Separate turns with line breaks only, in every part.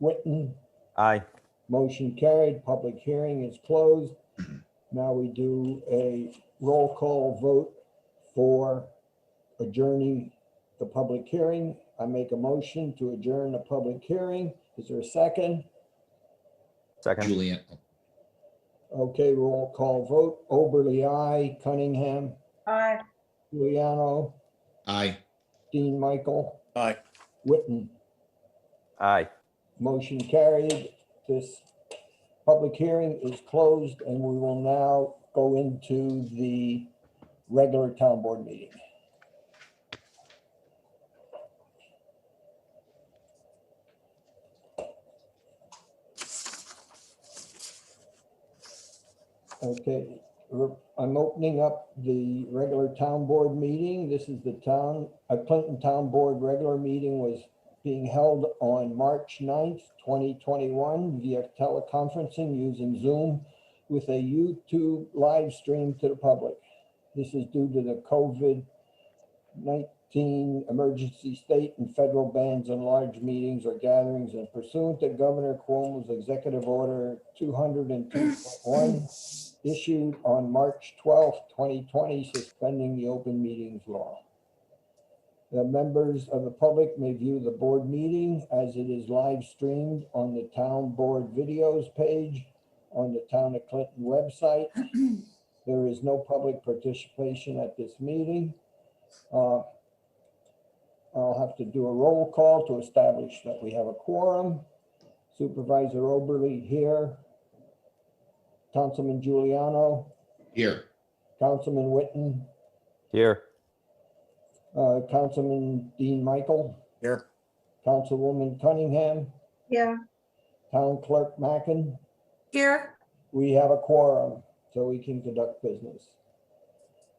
Witten,
Aye.
motion carried, public hearing is closed. Now we do a roll call vote for adjourning the public hearing. I make a motion to adjourn the public hearing. Is there a second?
Second.
Julian,
Okay, roll call vote. Oberly, I, Cunningham,
Aye.
Giuliano,
aye.
Dean Michael,
Aye.
Witten.
Aye.
Motion carried. This public hearing is closed and we will now go into the regular town board meeting. Okay, we're- I'm opening up the regular town board meeting. This is the town, uh, Clinton Town Board regular meeting was being held on March 9th, 2021 via teleconferencing using Zoom with a YouTube live stream to the public. This is due to the COVID-19 emergency state and federal bans on large meetings or gatherings and pursuant to Governor Cuomo's Executive Order 202.1 issued on March 12th, 2020, suspending the open meetings law. The members of the public may view the board meeting as it is live streamed on the town board videos page on the town of Clinton website. There is no public participation at this meeting. Uh, I'll have to do a roll call to establish that we have a quorum. Supervisor Oberly here. Councilman Giuliano,
Here,
Councilman Witten,
Here.
uh, Councilman Dean Michael.
Here.
Councilwoman Cunningham,
Yeah.
Town Clerk Mackin,
Here.
we have a quorum, so we can conduct business.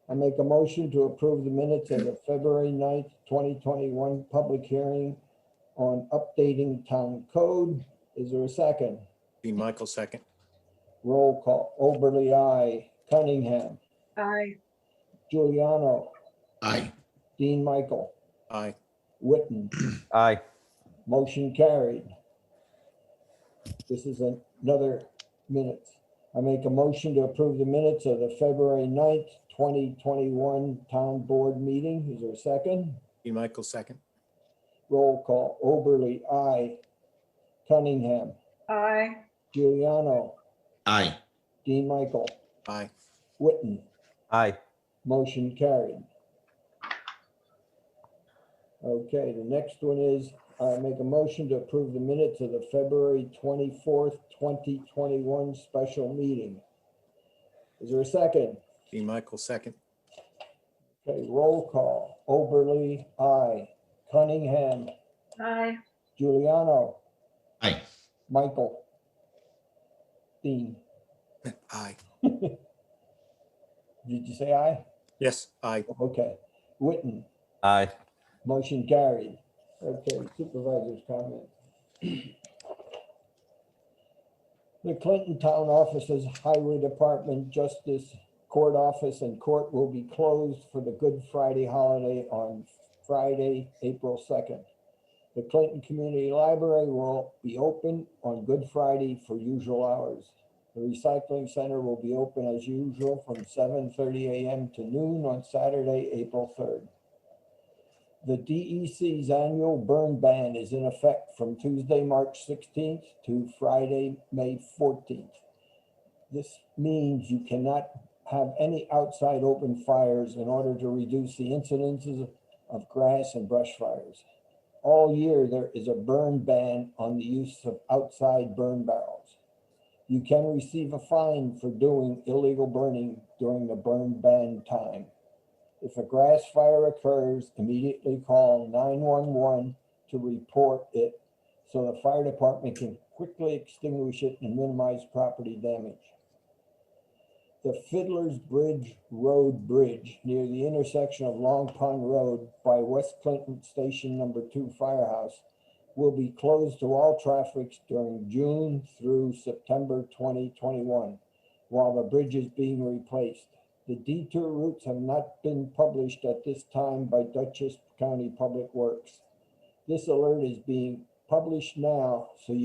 I make a motion to approve the minutes of the February 9th, twenty twenty-one public hearing on updating town code. Is there a second?
Dean Michael, second.
Roll call. Oberly, I. Cunningham,
Aye.
Giuliano,
aye.
Dean Michael,
Aye.
Witten.
Aye.
Motion carried. This is an- another minutes. I make a motion to approve the minutes of the February 9th, twenty twenty-one town board meeting. Is there a second?
Dean Michael, second.
Roll call. Oberly, I. Cunningham,
Aye.
Giuliano,
Aye.
Dean Michael,
Aye.
Witten.
Aye.
Motion carried. Okay, the next one is, I make a motion to approve the minutes of the February twenty-fourth, twenty twenty-one special meeting. Is there a second?
Dean Michael, second.
Okay, roll call. Oberly, aye. Cunningham,
Aye.
Giuliano,
Aye.
Michael. Dean,
Aye.
did you say aye?
Yes, aye.
Okay. Witten,
Aye.
motion carried. Okay, supervisor's comment. The Clinton Town Offices, Highway Department, Justice Court Office and Court will be closed for the Good Friday holiday on Friday, April 2nd. The Clinton Community Library will be open on Good Friday for usual hours. The recycling center will be open as usual from 7:30 a.m. to noon on Saturday, April 3rd. The DEC's annual burn ban is in effect from Tuesday, March 16th to Friday, May 14th. This means you cannot have any outside open fires in order to reduce the incidences of grass and brush fires. All year, there is a burn ban on the use of outside burn barrels. You can receive a fine for doing illegal burning during the burn ban time. If a grass fire occurs, immediately call 911 to report it so the fire department can quickly extinguish it and minimize property damage. The Fiddler's Bridge Road Bridge near the intersection of Long Pond Road by West Clinton Station Number 2 Firehouse will be closed to all traffic during June through September 2021 while the bridge is being replaced. The detour routes have not been published at this time by Dutchess County Public Works. This alert is being published now, so you.